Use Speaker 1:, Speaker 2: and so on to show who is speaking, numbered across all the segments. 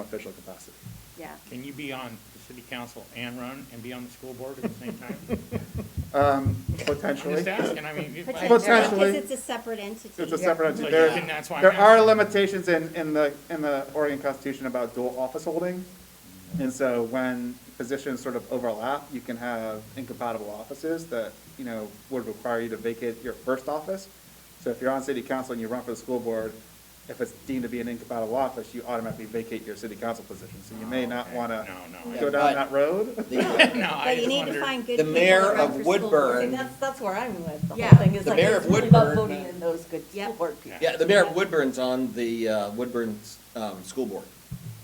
Speaker 1: official capacity.
Speaker 2: Yeah.
Speaker 3: Can you be on the city council and run and be on the school board at the same time?
Speaker 1: Um,
Speaker 3: I'm
Speaker 1: potentially.
Speaker 3: just asking, I mean. it-
Speaker 1: Potentially.
Speaker 2: Because it's a separate entity.
Speaker 1: It's a separate entity.
Speaker 3: So yeah,
Speaker 1: There,
Speaker 3: then that's why I'm
Speaker 1: there are
Speaker 3: asking.
Speaker 1: limitations in, in the, in the Oregon Constitution about dual office holding. And so when positions sort of overlap, you can have incompatible offices that, you know, would require you to vacate your first office. So if you're on city council and you run for the school board, if it's deemed to be an incompatible office, you automatically vacate your city council position. So you may not
Speaker 3: Oh, Okay.
Speaker 1: want to
Speaker 3: No, no.
Speaker 1: go down that road.
Speaker 4: The, uh,
Speaker 3: No, I
Speaker 2: But you
Speaker 3: just
Speaker 2: need to
Speaker 3: wondered.
Speaker 2: find good
Speaker 4: The
Speaker 2: people.
Speaker 4: mayor
Speaker 2: to run
Speaker 4: of
Speaker 2: for school board.
Speaker 4: Woodburn-
Speaker 5: And that's, that's where I'm with, the
Speaker 2: Yeah.
Speaker 5: whole thing, is
Speaker 4: The
Speaker 5: like,
Speaker 4: mayor
Speaker 5: it's
Speaker 4: of
Speaker 5: really about
Speaker 4: Woodburn,
Speaker 5: voting
Speaker 4: uh,
Speaker 5: in those good
Speaker 2: Yeah.
Speaker 5: school board people.
Speaker 3: Yeah.
Speaker 4: yeah, the mayor of Woodburn's on the uh, Woodburn um, School Board.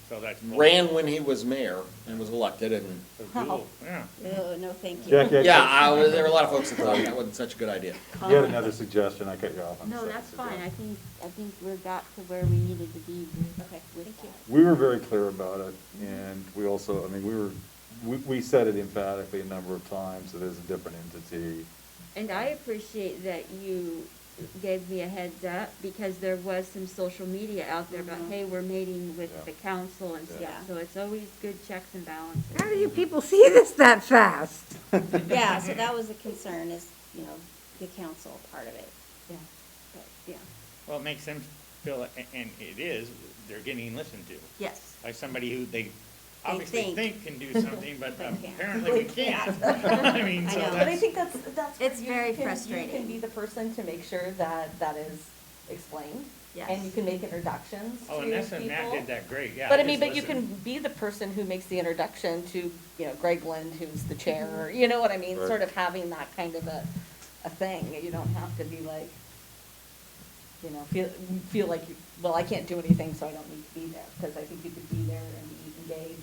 Speaker 3: So that's. bull-
Speaker 4: Ran when he was mayor and was elected, and
Speaker 3: so bull, Yeah.
Speaker 2: Oh, no, thank you.
Speaker 6: Jackie, I
Speaker 4: yeah,
Speaker 6: got-
Speaker 4: I, was- there were a lot of folks that thought that wasn't such a good idea.
Speaker 6: you had another suggestion, I cut you off. I'm
Speaker 7: No,
Speaker 6: sorry.
Speaker 7: that's fine, I think, I think we're got to where we needed to be with
Speaker 2: Okay,
Speaker 7: with
Speaker 2: thank you.
Speaker 6: We were very clear about it, and we also, I mean, we were, we, we said it emphatically a number of times, that it's a different entity.
Speaker 7: And I appreciate that you gave me a heads up, because there was some social media out there about, hey, we're meeting
Speaker 6: Yeah.
Speaker 7: with the council and
Speaker 2: Yeah.
Speaker 7: stuff, so it's always good checks and balances.
Speaker 8: How do you people see this that fast?
Speaker 2: Yeah, so that was a concern is, you know, the council part of it.
Speaker 7: Yeah, but, yeah.
Speaker 3: Well, it makes them feel, a- and it is, they're getting listened to
Speaker 5: Yes.
Speaker 3: by somebody who they obviously
Speaker 2: think.
Speaker 3: think can do something, but
Speaker 2: They can't.
Speaker 3: apparently we can't. I mean,
Speaker 2: I
Speaker 3: so
Speaker 2: know.
Speaker 5: But I
Speaker 3: that's,
Speaker 5: think that's, that's. where
Speaker 2: It's
Speaker 5: you
Speaker 2: very
Speaker 5: can- You
Speaker 2: frustrating.
Speaker 5: can be the person to make sure that that is explained. And you
Speaker 2: Yes.
Speaker 5: can make introductions to
Speaker 3: oh, and that's, and Matt
Speaker 5: people.
Speaker 3: did that great, yeah.
Speaker 5: But I mean,
Speaker 3: just
Speaker 5: but you can
Speaker 3: listen.
Speaker 5: be the person who makes the introduction to, you know, Greg Lind, who's the chair, or, you know what I mean?
Speaker 6: Right.
Speaker 5: Sort of having that kind of a, a thing. You don't have to be like, you know, feel, feel like, you well, I can't do anything, so I don't need to be there. Because I think you could be there and be engaged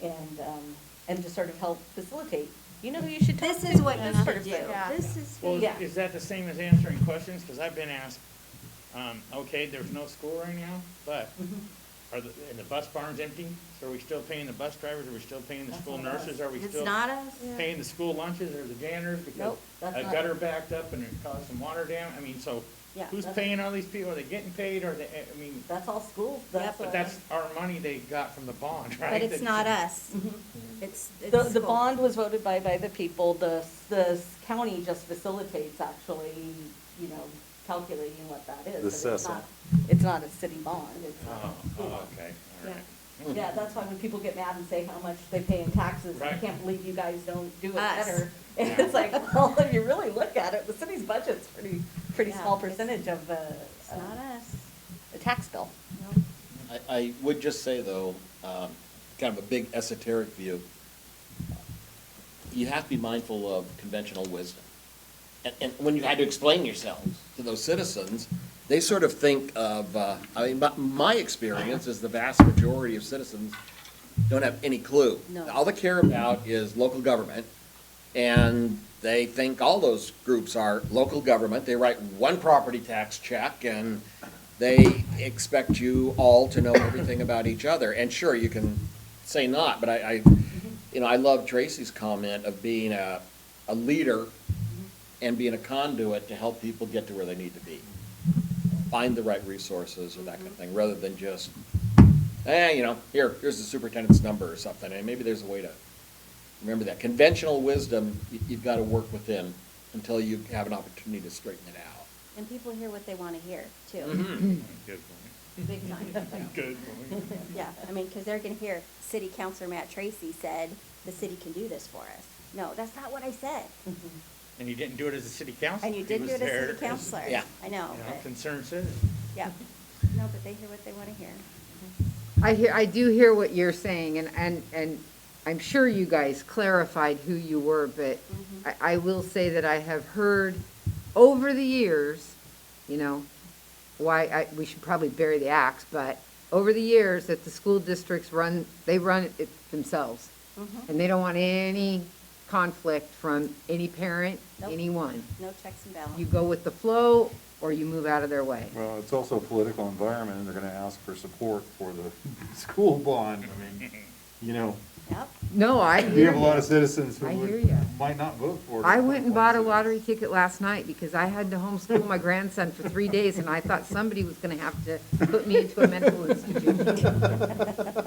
Speaker 3: Okay.
Speaker 5: and, um, and just sort of help facilitate. You know who you should talk to?
Speaker 2: This is what you
Speaker 5: this
Speaker 2: should
Speaker 5: person.
Speaker 2: do.
Speaker 7: This is,
Speaker 3: Well,
Speaker 5: Yeah.
Speaker 3: is- is that the same as answering questions? Because I've been asked, um, okay, there's no school right now, but
Speaker 5: Mm-hmm.
Speaker 3: are the, and the bus barn's empty? So are we still paying the bus drivers? Are we still paying the
Speaker 5: That's
Speaker 3: school
Speaker 5: not us.
Speaker 3: nurses? Are we
Speaker 2: It's
Speaker 3: still
Speaker 2: not us.
Speaker 3: paying the school lunches or the janitors? Because
Speaker 5: Nope, that's
Speaker 3: a
Speaker 5: not-
Speaker 3: gutter backed up and it caused some water dam? I mean, so
Speaker 5: Yeah,
Speaker 3: who's
Speaker 5: that's-
Speaker 3: paying all these people? Are they getting paid? Are they, I mean,
Speaker 5: That's all schools.
Speaker 2: Yep.
Speaker 3: but
Speaker 5: what-
Speaker 3: that's our money they got from the bond, right?
Speaker 2: But it's
Speaker 3: That-
Speaker 2: not us. It's, it's.
Speaker 5: Mm-hmm. The, the
Speaker 2: school.
Speaker 5: bond was voted by, by the people, the, the county just facilitates actually, you know, calculating what that is.
Speaker 6: The
Speaker 5: but it's
Speaker 6: assessment.
Speaker 5: not- It's not a city bond, it's not.
Speaker 3: Oh, oh, okay, all right.
Speaker 5: Yeah, that's why when people get mad and say how much they pay in taxes, I
Speaker 3: Right.
Speaker 5: can't believe you guys don't do it
Speaker 2: Us.
Speaker 5: better.
Speaker 3: Yeah.
Speaker 5: It's like, well, if you really look at it, the city's budget's pretty, pretty
Speaker 2: Yeah,
Speaker 5: small
Speaker 2: it's-
Speaker 5: percentage of the, uh,
Speaker 2: It's not us.
Speaker 5: the tax bill.
Speaker 4: I, I would just say though, um, kind of a big esoteric view, you have to be mindful of conventional wisdom. And, and when you had to explain yourselves to those citizens, they sort of think of, uh, I mean, my, my experience is the vast majority of citizens don't have any clue.
Speaker 7: No.
Speaker 4: All they care about is local government, and they think all those groups are local government. They write one property tax check, and they expect you all to know everything about each other. And sure, you can say not, but I, I, you know, I love Tracy's comment of being a, a leader and being a conduit to help people get to where they need to be. Find the right resources or that kind of thing, rather than just, eh, you know, here, here's the superintendent's number or something, and maybe there's a way to remember that. Conventional wisdom, you, you've got to work within until you have an opportunity to straighten it out.
Speaker 2: And people hear what they want to hear too,
Speaker 3: Mm-hmm.
Speaker 4: Mhm.
Speaker 3: Good
Speaker 2: big time.
Speaker 3: point, good point.
Speaker 2: Yeah, I mean, because they're going to hear, City Councilor Matt Tracy said, the city can do this for us. No, that's not what I said.
Speaker 3: And you didn't do it as a city council.
Speaker 2: And you did do it as city councilor.
Speaker 4: yeah.
Speaker 2: I know,
Speaker 3: You know,
Speaker 2: but,
Speaker 3: concerned citizen.
Speaker 2: yeah. No, but they hear what they want to hear.
Speaker 8: I hear, I do hear what you're saying, and, and, and I'm sure you guys clarified who you were, but
Speaker 5: Mm-hmm.
Speaker 8: I, I will say that I have heard over the years, you know, why, I, we should probably bury the axe, but over the years that the school districts run, they run it themselves.
Speaker 5: Mm-hmm.
Speaker 8: And they don't want any conflict from any parent,
Speaker 2: Nope.
Speaker 8: anyone.
Speaker 2: No checks and
Speaker 8: You
Speaker 2: balances.
Speaker 8: go with the flow, or you move out of their way.
Speaker 6: Well, it's also a political environment, and they're gonna ask for support for the school bond, I mean,
Speaker 1: you know,
Speaker 2: Yep.
Speaker 8: No, I
Speaker 1: we
Speaker 8: hear
Speaker 1: have a lot
Speaker 8: you.
Speaker 1: of citizens who
Speaker 8: I hear
Speaker 1: would,
Speaker 8: ya.
Speaker 1: might not vote for it.
Speaker 8: I went and bought a lottery ticket last night because I had to homeschool my grandson for three days and I thought somebody was gonna have to put me into a mental institution.